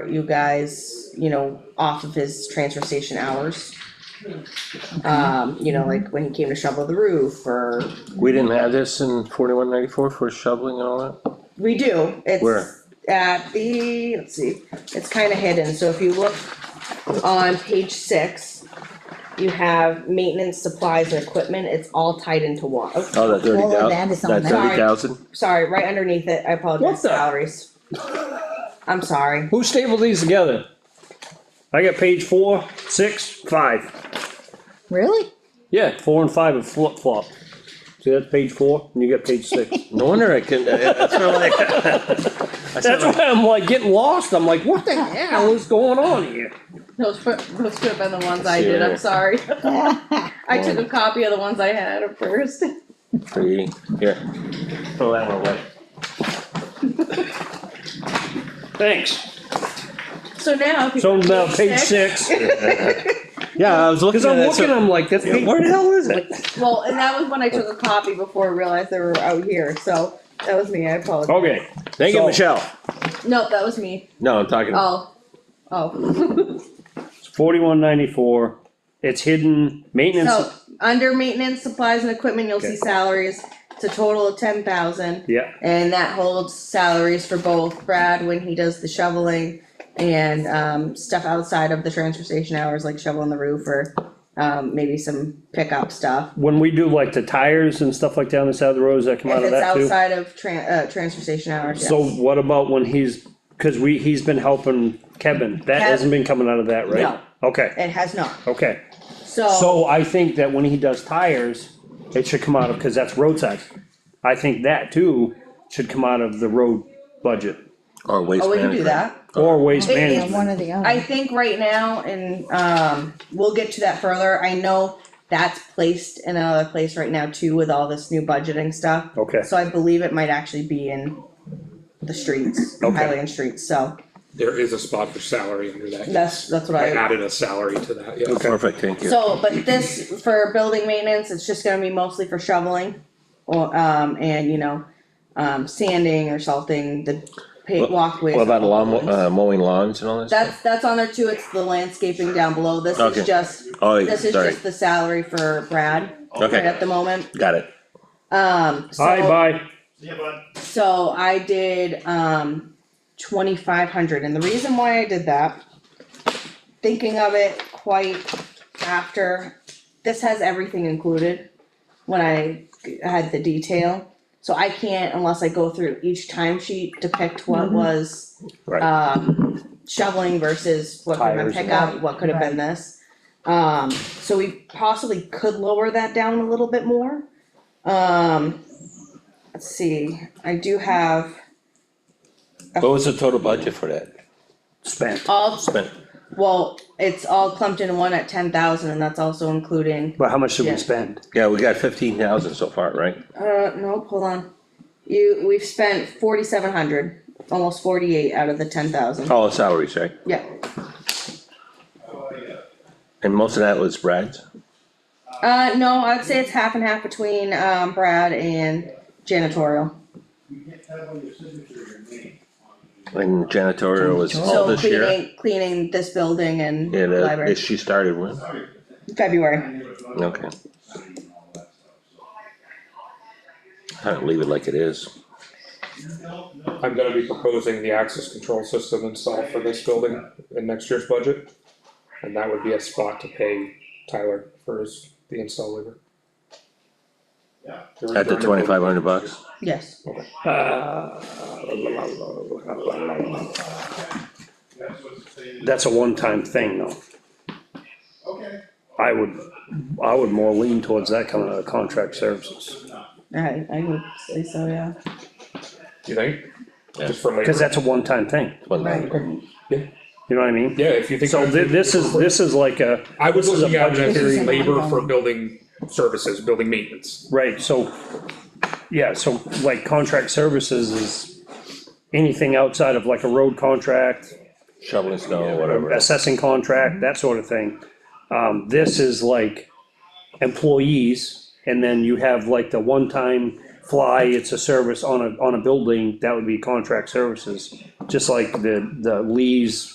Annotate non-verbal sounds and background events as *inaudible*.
you guys, you know, off of his transfer station hours. Um, you know, like when he came to shovel the roof or, We didn't have this in forty-one ninety-four for shoveling and all that? we do, it's. Where? At the, let's see, it's kinda hidden, so if you look on page six, you have maintenance supplies and equipment, it's all tied into one. Oh, Oh, that thirty All of that thousand, is on that that. thirty thousand? sorry, right underneath it, I apologize, What the- salaries. I'm sorry, Who stapled these together? I got page four, six, five. Really? Yeah, four and five are flip flop. See, that's page four, and you got page six. *laughs* No wonder I can, uh, that's not like. *laughs* That's not That's like, why I'm like getting lost. I'm like, what the hell is going on here? Those should, those should have been the ones I See you did, I'm later. sorry. I took a copy of the ones I had at first. *laughs* for eating, here. Throw that one away. Thanks. So now. if you So go to now page six, Yeah, I was looking cause at I'm it, looking, so, I'm like, that's page. where the hell is it? Well, and that was when I took a copy before I realized they were out here, so that was me, I apologize. Okay, Thank you, So- Michelle. No, that was me. No, I'm talking, Oh, oh. *laughs* it's forty-one ninety-four. It's hidden So, maintenance. under maintenance, supplies and equipment, you'll Okay. see salaries. It's a total of ten thousand. Yeah, And that holds salaries for both Brad when he does the shoveling and um stuff outside of the transfer station hours, like shoveling the roof or um maybe some pickup stuff. when we do like the tires and stuff like down the side of the roads, that come out If of it's that too. outside of tran- uh transfer station hours, So yes. what about when he's, cause we, he's been helping Kevin, that Kev- hasn't been coming out of that, right? Okay, It has not, okay, so, so I think that when he does tires, it should come out of, cause that's roadside. I think that too should come out of the road budget or waste oh, we can management. do that. or waste It- it's- Yeah, One management. or the other. I think right now, and um, we'll get to that further, I know that's placed in another place right now too with all this new budgeting stuff. Okay. So I believe it might actually be in the streets, Okay. Highland streets, so There is a spot for salary under that. that's, that's what I I, added a salary to that, yeah. Perfect, thank you. so, but this, for building maintenance, it's just gonna be mostly for shoveling. Or, um, and you know, um, sanding or salting the paved walkways. What about lawn, ones. uh, mowing lawns and all that stuff? That's, that's on there too, it's the landscaping down below, this Okay. is just Oh, yeah, This is sorry, just the salary for Brad. Okay. Right at the moment, got it. um, Bye, so, bye. so I did, um, twenty-five hundred, and the reason why I did that. Thinking of it quite after, this has everything included, when I had the detail. So I can't, unless I go through each timesheet, depict what was Right, um, shoveling versus what could have been Tires and- pickup, what could have been this. Um, so we possibly could lower that down a little bit more. Um, let's see, I do have what was the total budget for that? Spent, all, Spent, well, it's all clumped in one at ten thousand and that's also including, but how much did Yeah. we spend? yeah, we got fifteen thousand so far, right? uh, no, hold on. You, we've spent forty-seven hundred, almost forty-eight out of the ten thousand, All salaries, right? yeah. And most of that was Brad's? Uh, no, I'd say it's half and half between, um, Brad and janitorial. You can't have on your signature your name on the. And janitorial was all So Oh, this year? cleaning, cleaning this building and Yeah, that, library, that she started with, Sorry, February. Okay. Signing and all that stuff, kind of leave it like it is. so. No, no. I'm gonna be proposing the access control system installed for this building in next year's budget. And that would be a spot to pay Tyler for his, the install labor. Yeah. At the twenty-five hundred bucks? Yes. That's what's saying. That's a one-time thing though. Okay. I would, I would more lean towards that coming out of contract services. I, I would say so, yeah. You think? Yeah. Just for Cause labor? that's a one-time thing, One Right. thousand. you know what I mean? Yeah, if you think. So thi- this is, this is like a, I was this is a looking at it budget- This is as an labor for ongoing. building services, building maintenance. right, so, yeah, so like contract services is anything outside of like a road contract, Shoveling snow, whatever. assessing contract, that sort of thing. Um, this is like employees, and then you have like the one-time fly, it's a service on a, on a building, that would be contract services. Just like the, the Lee's